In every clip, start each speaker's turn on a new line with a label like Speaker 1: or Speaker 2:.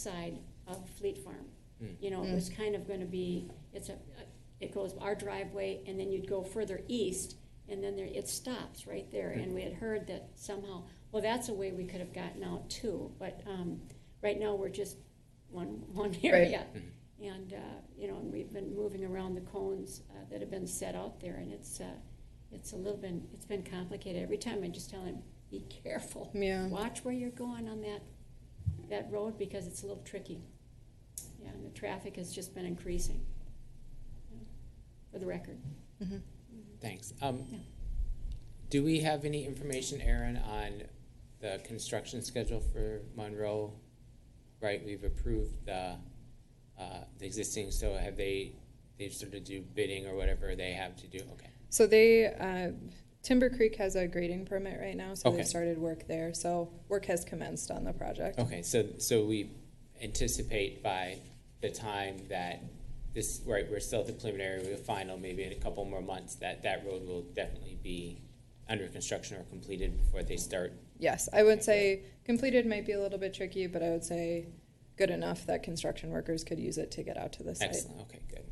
Speaker 1: side of Fleet Farm.
Speaker 2: Mm.
Speaker 1: You know, it was kind of gonna be, it's a, it goes our driveway, and then you'd go further east, and then there, it stops right there, and we had heard that somehow, well, that's a way we could have gotten out too, but, um, right now, we're just one, one area. And, uh, you know, and we've been moving around the cones, uh, that have been set out there, and it's, uh, it's a little been, it's been complicated. Every time I just tell him, be careful.
Speaker 3: Yeah.
Speaker 1: Watch where you're going on that, that road because it's a little tricky. Yeah, and the traffic has just been increasing. Yeah, For the record.
Speaker 3: Mm-hmm.
Speaker 2: Thanks. Um,
Speaker 1: Yeah.
Speaker 2: do we have any information, Aaron, on the construction schedule for Monroe? Right, we've approved the, uh, the existing, so have they, they've sort of do bidding or whatever they have to do? Okay.
Speaker 3: So they, uh, Timber Creek has a grading permit right now, so
Speaker 2: Okay.
Speaker 3: they've started work there. So work has commenced on the project.
Speaker 2: Okay, so, so we anticipate by the time that this, right, we're still at the preliminary, we're final, maybe in a couple more months, that that road will definitely be under construction or completed before they start
Speaker 3: Yes, I would say completed might be a little bit tricky, but I would say good enough that construction workers could use it to get out to the site.
Speaker 2: Excellent, okay, good.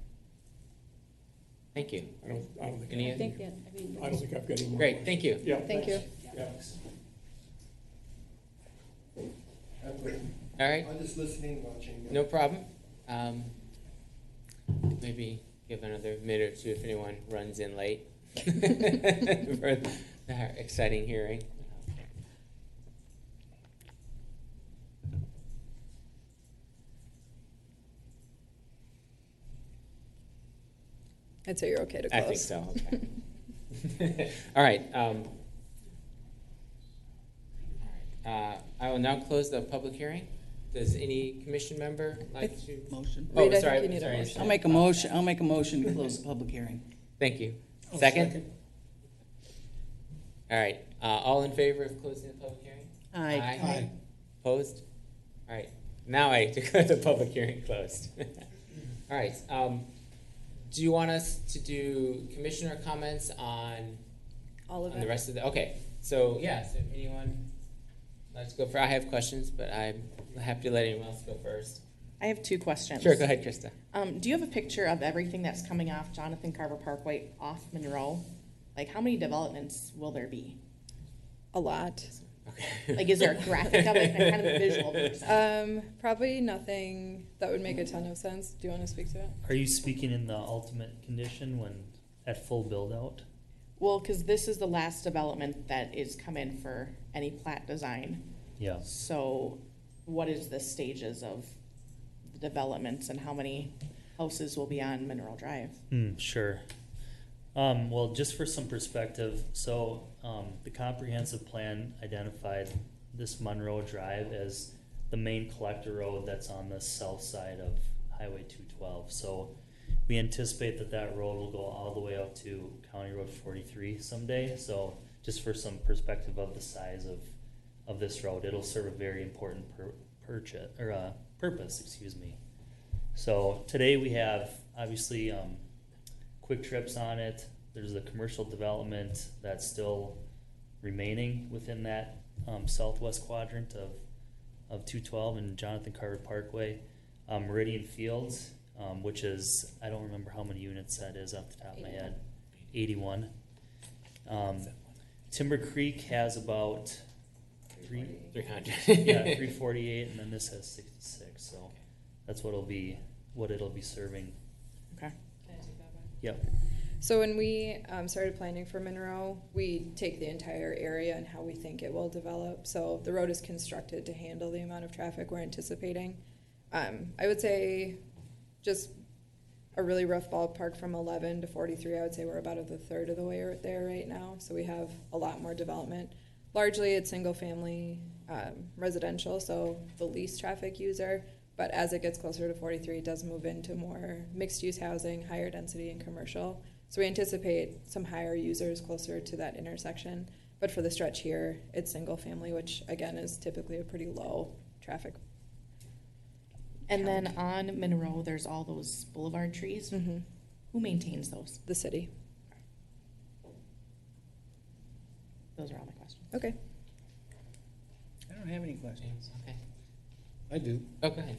Speaker 2: Thank you.
Speaker 4: I don't, I don't think,
Speaker 2: Any
Speaker 1: I
Speaker 2: other?
Speaker 1: think that, I mean,
Speaker 4: I don't think I've got any more.
Speaker 2: Great, thank you.
Speaker 4: Yeah.
Speaker 3: Thank you.
Speaker 4: Thanks.
Speaker 2: All right,
Speaker 5: I'm just listening, watching.
Speaker 2: no problem. Um, Maybe give another minute or two if anyone runs in late for our exciting hearing.
Speaker 3: I'd say you're okay to
Speaker 2: I
Speaker 3: close.
Speaker 2: think so, okay. All right. um, uh, I will now close the public hearing. Does any commission member like to?
Speaker 6: Motion.
Speaker 2: Oh,
Speaker 3: Reed, I think
Speaker 2: sorry,
Speaker 3: you need a
Speaker 2: sorry,
Speaker 3: motion.
Speaker 2: sorry.
Speaker 6: I'll make a motion, I'll make a motion to close the public hearing.
Speaker 2: Thank you.
Speaker 4: I'll
Speaker 2: Second? All right, uh, all in favor of closing the public hearing?
Speaker 6: Aye.
Speaker 4: Aye.
Speaker 2: Opposed? All right, now I declare the public hearing closed. All right, um, do you want us to do commissioner comments on,
Speaker 3: All of
Speaker 2: on the
Speaker 3: it.
Speaker 2: rest of the, okay. So, yeah, so if anyone, let's go for, I have questions, but I'm happy to let anyone else go first.
Speaker 7: I have two questions.
Speaker 2: Sure, go ahead, Krista.
Speaker 7: Um, do you have a picture of everything that's coming off Jonathan Carver Parkway off Monroe? Like, how many developments will there be?
Speaker 3: A lot.
Speaker 2: Okay.
Speaker 7: Like, is there a graphic of it? I'm kind of a visual person.
Speaker 3: Um, probably nothing that would make a ton of sense. Do you want to speak to it?
Speaker 8: Are you speaking in the ultimate condition when at full build out?
Speaker 7: Well, because this is the last development that is come in for any plat design.
Speaker 8: Yeah.
Speaker 7: So what is the stages of the developments and how many houses will be on Mineral Drive?
Speaker 8: Hmm, sure. Um, well, just for some perspective, so um, the comprehensive plan identified this Monroe Drive as the main collector road that's on the south side of Highway 212. So we anticipate that that road will go all the way out to County Road 43 someday. So just for some perspective of the size of of this road, it'll serve a very important pur- purchase or uh, purpose. Excuse me. So today we have obviously um, quick trips on it. There's a commercial development that's still remaining within that um, southwest quadrant of of 212 and Jonathan Carver Parkway, um, Meridian Fields, um, which is I don't remember how many units that is off the top of my head, 81. Um, Timber Creek has about three,
Speaker 2: Three hundred.
Speaker 8: yeah, three forty-eight, and then this has sixty-six, so that's what it'll be, what it'll be serving.
Speaker 7: Okay.
Speaker 8: Yep,
Speaker 3: So when we um, started planning for Monroe, we take the entire area and how we think it will develop. So the road is constructed to handle the amount of traffic we're anticipating. Um, I would say, just a really rough ballpark from 11 to 43. I would say we're about at the third of the way right there right now. So we have a lot more development. Largely, it's single-family um, residential, so the least traffic user. But as it gets closer to 43, it does move into more mixed-use housing, higher density, and commercial. So we anticipate some higher users closer to that intersection. But for the stretch here, it's single-family, which again is typically a pretty low traffic.
Speaker 7: And then on Monroe, there's all those boulevard trees.
Speaker 3: Mm-hmm.
Speaker 7: Who maintains those?
Speaker 3: The city.
Speaker 7: Those are all my questions.
Speaker 3: Okay.
Speaker 6: I don't have any questions.
Speaker 2: Okay.
Speaker 4: I do.
Speaker 2: Oh, go ahead.